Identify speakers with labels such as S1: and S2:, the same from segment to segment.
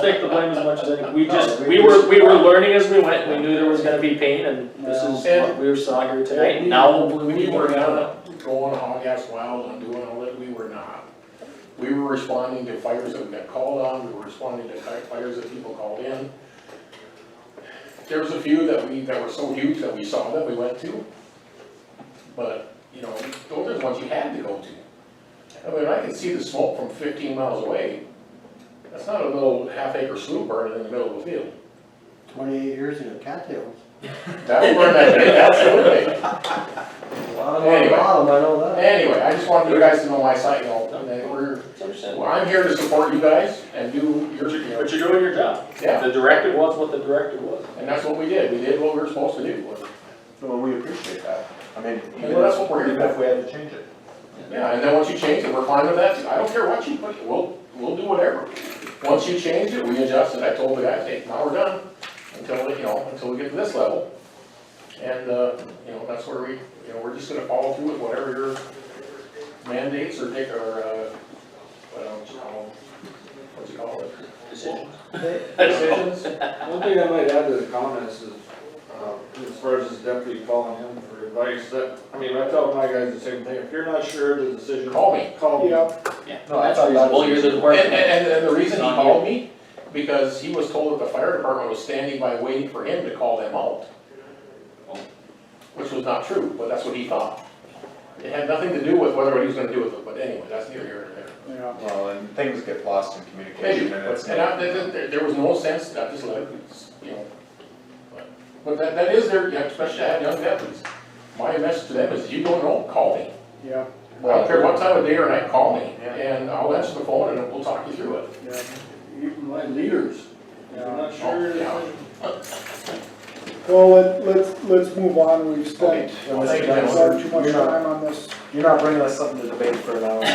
S1: take the blame as much as any, we just,
S2: No, we
S1: we were,
S2: just-
S1: we were learning as we went, we knew there was gonna be pain, and this is what we saw here tonight, and now hopefully we
S3: We
S1: can
S3: were
S1: work on it.
S3: not going hog ass wild and doing all that, we were not. We were responding to fires that we got called on, we were responding to fi- fires that people called in. There was a few that we, that were so huge that we saw that we went to. But, you know, those are the ones you had to go to. I mean, I can see the smoke from fifteen miles away. That's not a little half acre slough burning in the middle of the field.
S2: Twenty-eight years ago, cattails.
S3: That burned that big, absolutely.
S2: A lot of,
S3: Anyway.
S2: a lot of them, I know that.
S3: Anyway, I just wanted you guys to know my side, you know, and that we're, well, I'm here to support you guys and do your, you know,
S1: But you're doing your job,
S3: yeah,
S1: the directive was what the directive was.
S3: and that's what we did, we did what we were supposed to do.
S4: Well, we appreciate that. I mean, even
S3: Well, that's what we're
S4: if,
S3: here
S4: even
S3: for.
S4: if we had to change it.
S3: Yeah, and then once you change it, we're fine with that, I don't care what you put, we'll, we'll do whatever. Once you change it, we adjust it, I told the guys, hey, now we're done, until, you know, until we get to this level. And, uh, you know, that's where we, you know, we're just gonna follow through with whatever your mandates or take, or, uh, what else you call them? What's it called? Decisions?
S5: One thing I might add to the comments is, uh, as far as his deputy calling him for advice, that, I mean, I tell my guys the same thing, if you're not sure of the decision.
S3: Call me.
S5: Call me.
S4: No, I thought that
S1: Well,
S4: was.
S1: you're the
S3: And,
S1: department.
S3: and, and the reason he called me, because he was told that the fire department was standing by waiting for him to call them out. Which was not true, but that's what he thought. It had nothing to do with whether what he was gonna do with it, but anyway, that's neither here nor there.
S2: Yeah.
S4: Well, and things get lost in communication and it's.
S3: And I, there, there- there was no sense, I just let, it, you know. but- But that, that is their, especially I have young deputies, my message to them is, you don't know, call me.
S2: Yeah,
S3: I don't care what time of day or night, call me,
S4: Yeah.
S3: and I'll answer the phone and we'll talk you through it.
S2: yeah,
S5: Even my leaders, if you're not sure. of the
S3: Yeah.
S5: decision,
S2: well, let, let's, let's move on, we've spent
S3: Okay.
S4: Well,
S2: far
S4: thank
S2: too
S4: you, gentlemen.
S2: much
S4: You're not-
S2: time on this.
S4: You're not bringing us something to debate for an hour.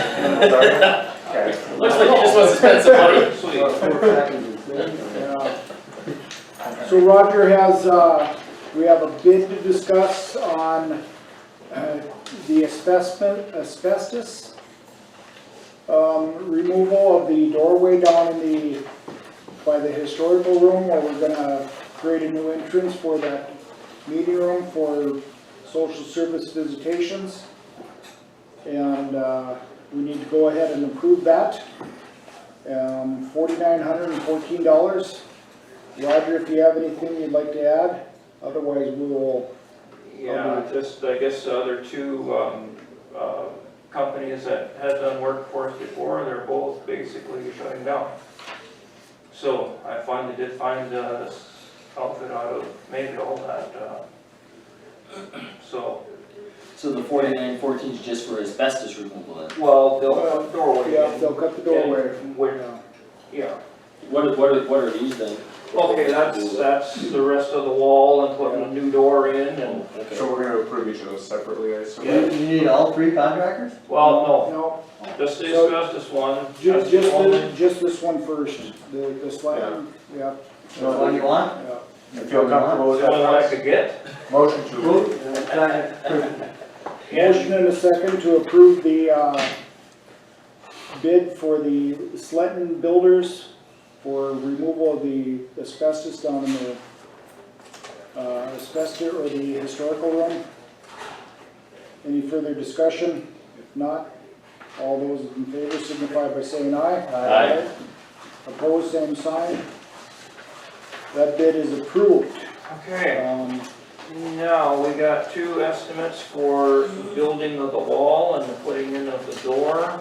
S4: Sorry. Okay.
S1: Looks like he just wants to spend some money.
S2: Yeah. So Roger has, uh, we have a bid to discuss on, uh, the asbestos, asbestos, um, removal of the doorway down in the, by the historical room where we're gonna create a new entrance for that meeting room for social service visitations. And, uh, we need to go ahead and approve that um, forty-nine hundred and fourteen dollars. Roger, if you have anything you'd like to add, otherwise we will,
S6: Yeah, just, I guess the other two um, uh, companies that had done work for us before, they're both basically shutting down. So I finally did find uh, this outfit out of Mayville that, uh, so,
S7: So the forty-nine fourteen is just for asbestos removal then?
S6: well, they'll have doorway
S2: yeah,
S6: in.
S2: they'll cut the doorway.
S6: and where-
S2: Yeah.
S6: Yeah,
S7: What are, what are, what are these then?
S6: okay, that's, that's the rest of the wall and putting a new door in and,
S4: So we're gonna approve each of those separately, I assume?
S6: Yeah.
S7: You need all three contractors?
S6: well,
S2: No,
S6: no, just the
S2: So-
S6: asbestos one.
S2: ju-
S6: that's
S2: just,
S6: the
S2: this-
S6: only-
S2: just this one first, the, this one, yeah,
S7: That's what you want?
S2: yeah.
S4: You feel comfortable with
S6: the only one I
S4: that?
S6: could get.
S4: Motion to approve.
S2: Motion and a second to approve the, uh, bid for the Sletton Builders for removal of the asbestos down in the, uh, asbestos or the historical room. Any further discussion? If not, all those in favor signify by saying aye.
S1: Aye.
S2: Opposed, same sign. That bid is approved.
S6: Okay.
S2: Um,
S6: Now, we got two estimates for the building of the wall and the putting in of the door.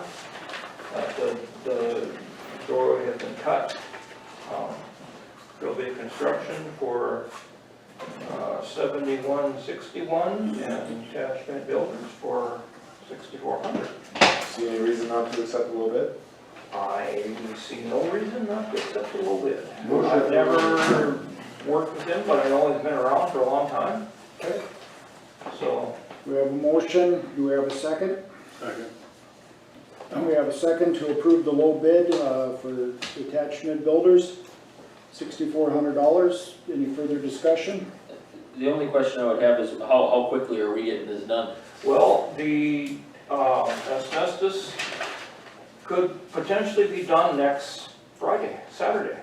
S6: Uh, The, the door has been cut. Um, There'll be construction for uh, seventy-one sixty-one and attachment builders for sixty-four hundred.
S4: See any reason not to accept a little bit?
S6: I see no reason not to accept a little bit.
S4: Motion.
S6: I've never worked with him, but I know he's been around for a long time.
S2: Okay.
S6: So,
S2: We have a motion, do we have a second? Second. We have a second to approve the low bid uh, for attachment builders, sixty-four hundred dollars. Any further discussion?
S7: The only question I would have is how, how quickly are we getting this done?
S6: Well, the um, asbestos could potentially be done next Friday, Saturday.